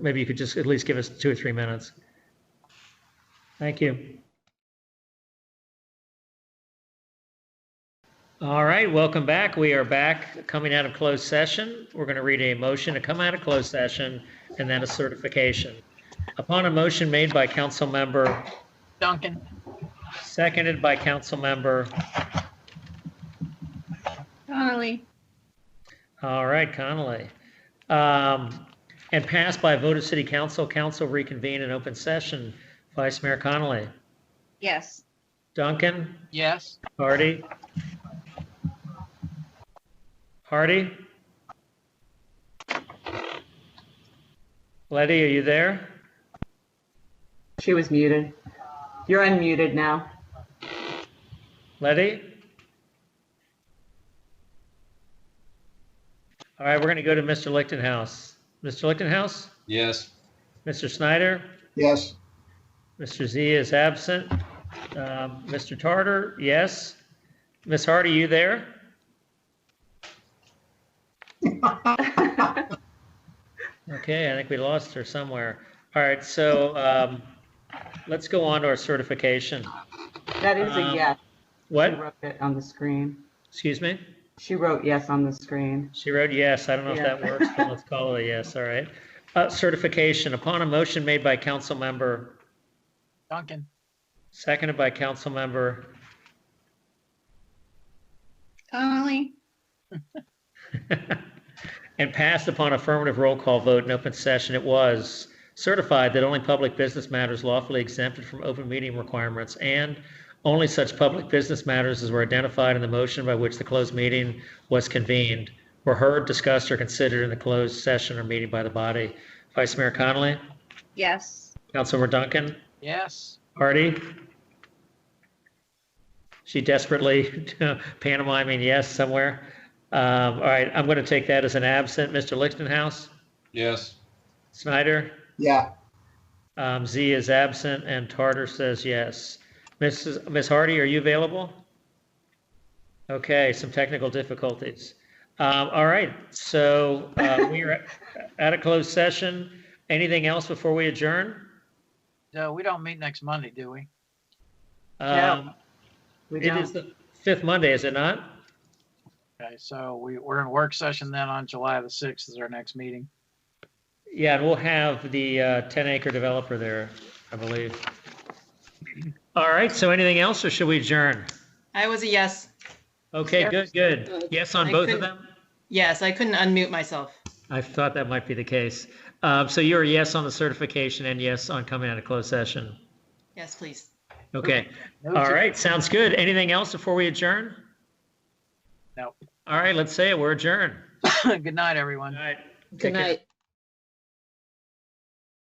maybe you could just at least give us two or three minutes. Thank you. All right, welcome back. We are back coming out of closed session. We're going to read a motion to come out of closed session and then a certification. Upon a motion made by council member, Duncan. seconded by council member, Donnelly. all right, Connolly. Um, and passed by a vote of city council, council reconvene in open session. Vice Mayor Connolly, Yes. Duncan, Yes. Hardy? Hardy? Letty, are you there? She was muted. You're unmuted now. Letty? All right, we're going to go to Mr. Lichtenhouse. Mr. Lichtenhouse? Yes. Mr. Snyder? Yes. Mr. Z is absent. Um, Mr. Tartar, yes. Ms. Hardy, you there? Okay, I think we lost her somewhere. All right, so um, let's go on to our certification. That is a Um, yes. She What? wrote it on the screen. Excuse me? She wrote yes on the screen. She wrote yes. I don't know if Yeah. that works, but let's call it a yes, all right. Uh, Certification, upon a motion made by council member, Duncan. seconded by council member Donnelly. And passed upon affirmative roll call vote in open session, it was certified that only public business matters lawfully exempted from open meeting requirements and only such public business matters as were identified in the motion by which the closed meeting was convened were heard, discussed, or considered in the closed session or meeting by the body. Vice Mayor Connolly, Yes. Councilmember Duncan, Yes. Hardy. She desperately pantomiming yes somewhere. Um, all right, I'm going to take that as an absent. Mr. Lichtenhouse? Yes. Snyder, Yeah. um, Z is absent, and Tartar says yes. Mrs. Ms. Hardy, are you available? Okay, some technical difficulties. Um, all right, so uh, we are at a closed session. Anything else before we adjourn? So we don't meet next Monday, do we? Um, We it is don't. the fifth Monday, is it not? Okay, so we, we're in work session then on July the 6th is our next meeting. Yeah, and we'll have the uh, 10 acre developer there, I believe. All right, so anything else, or should we adjourn? I was a yes. Okay, good, good. Yes on both of couldn't- them? Yes, I couldn't unmute myself. I thought that might be the case. Um, So you're a yes on the certification and yes on coming out of closed session. Yes, please. Okay, No all change. right, sounds good. Anything else before we adjourn? No. All right, let's say it, we're adjourned. Good night, everyone. All right. take Good care. night.